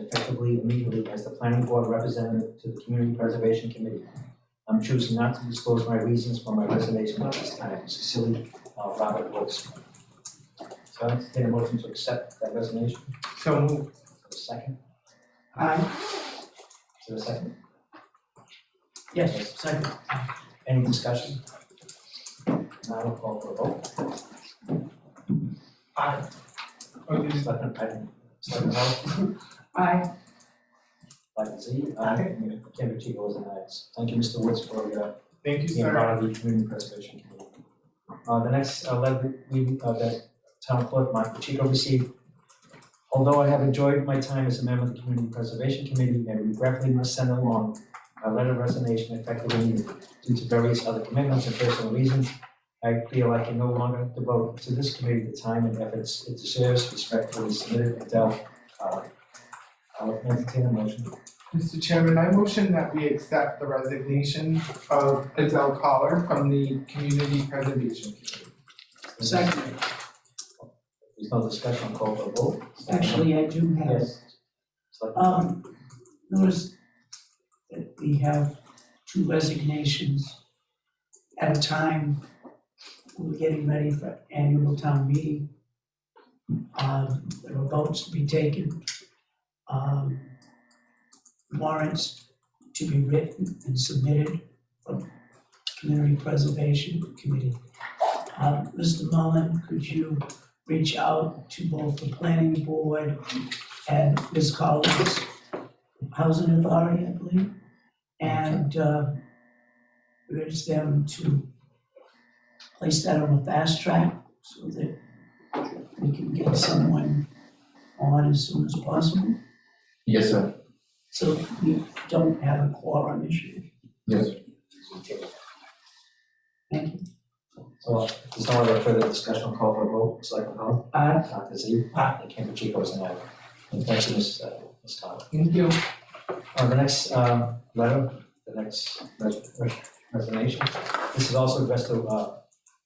effectively and legally as the planning board representative to the Community Preservation Committee. I'm choosing not to disclose my reasons for my resignation at this time. Cecily uh, Robert Woods. So I entertain a motion to accept that resignation. So moved. Is there a second? Aye. Is there a second? Yes, second. Any discussion? Now I'll call for a vote. Aye. Oh, you just- Selectman Patton, Selectman Hull, Aye. Selectman Z, Aye. and Chairman Chico is an aye. Thank you, Mr. Woods, for your Thank being you, sir. part of the community preservation committee. Uh, the next uh, letter we, uh, that town clerk, Mike Pacheco received. Although I have enjoyed my time as a member of the community preservation committee and regretfully must send along a letter of resignation effective immediately due to various other commitments and personal reasons, I feel I can no longer devote to this committee the time and efforts it deserves, respectfully submitted, Adele Howard. I'll entertain a motion. Mr. Chairman, I motion that we accept the resignation of Adele Collar from the Community Preservation Committee. Second, There's no discussion, call for a vote. actually, I do have, Yes. Selectman um, notice that we have two resignations at a time. We're getting ready for annual town meeting. Um, there are votes to be taken. Um, warrants to be written and submitted from Community Preservation Committee. Um, Mr. Mullin, could you reach out to both the planning board and Ms. Collins, Housing Authority, I believe, and, uh, urge them to place that on a fast track so that we can get someone on as soon as possible, Yes, sir. so we don't have a quorum issue. Yes. Thank you. So if there's no other further discussion, call for a vote, Selectman Hull? Aye. Dr. Z? Aye. And Campa Chico is an aye. And thank you, Ms. uh, Ms. Tyler. Thank you. Uh, the next, uh, letter, the next res- res- resignation, this is also addressed to, uh,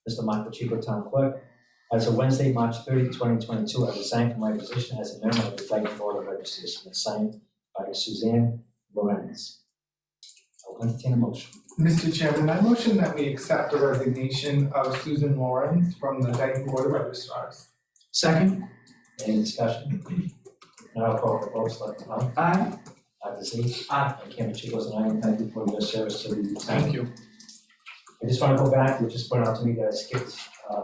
Mr. Michael Chico, Town Clerk. As of Wednesday, March 30, 2022, I resigned from my position as a member of the Dyton Board of Registers, and signed by Suzanne Lorenz. I'll entertain a motion. Mr. Chairman, I motion that we accept the resignation of Susan Lawrence from the Dyton Board of Registrars. Second, Any discussion? Now I'll call for a vote, Selectman Hull? aye, Dr. Z. Aye. And Chairman Chigos and I and thank you for your service to the town. you. I just want to go back, you just pointed out to me that I skipped, uh,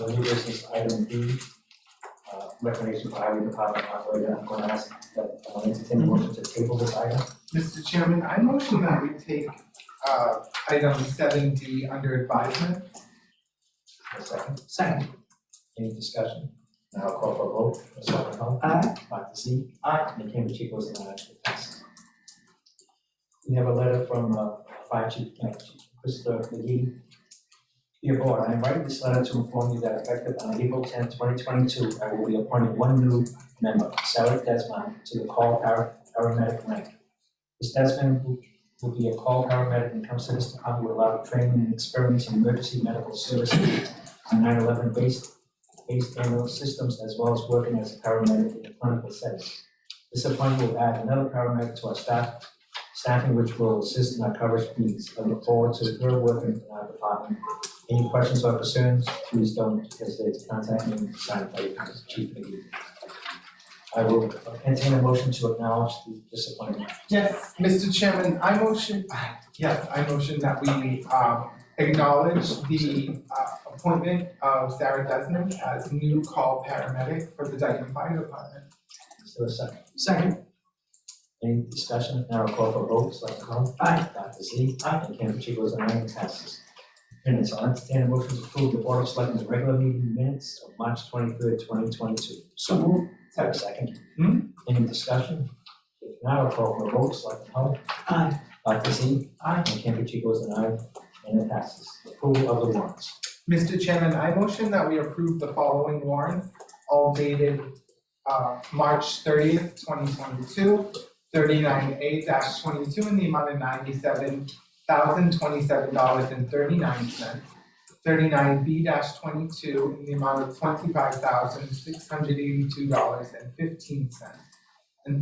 on the new business item B, uh, recommendation for highway department operator, I'm going to ask that, I want to entertain a motion to table this item. Mr. Chairman, I motion that we take uh item seven D under advisement. A second, second, any discussion? Now I'll call for a vote, Ms. Hoffman Hull, aye, Dr. Z. Aye. And Chairman Chigos and I, it passes. We have a letter from, uh, Fire Chief, uh, Chief Christopher McGee, Dear Board, I am writing this letter to inform you that effective on April 10, twenty twenty-two, I will be appointing one new member, Sarah Desmond, to the call par- paramedic rank. Ms. Desmond will- will be a call paramedic and comes to this department with a lot of training and experience in emergency medical services and 9/11 based, based ambulance systems, as well as working as a paramedic in a clinical setting. This appointment will add another paramedic to our staff, staffing which will assist in our coverage needs. I look forward to her working in our department any questions or concerns, please don't hesitate to contact me, and sign by Chief McGee. I will entertain a motion to acknowledge the disappointment. Yes. Mr. Chairman, I motion, yes, I motion that we um acknowledge the uh appointment of Sarah Desmond as new call paramedic for the Dyton Fire Department. Is there a second? second, Any discussion? Now I'll call for vote, Selectman Hull? Aye. Dr. Z? Aye. And Campa Chico is an aye, and passes. Minutes, I'll entertain a motion to approve the Board of Selectmen's regular meeting minutes of March twenty-third, twenty twenty-two. so moved, Is there a second? Hmm. Any discussion? If not, I'll call for vote, Selectman Hull? aye, Dr. Z? Aye. And Campa Chico is an aye, and it passes. Approval of the warrants. Mr. Chairman, I motion that we approve the following warrants, all dated uh March thirtieth, twenty twenty-two, thirty-nine A twenty-two in the amount of ninety-seven thousand twenty-seven dollars and thirty-nine cents. Thirty-nine B twenty-two in the amount of twenty-five thousand six hundred eighty-two dollars and fifteen cents.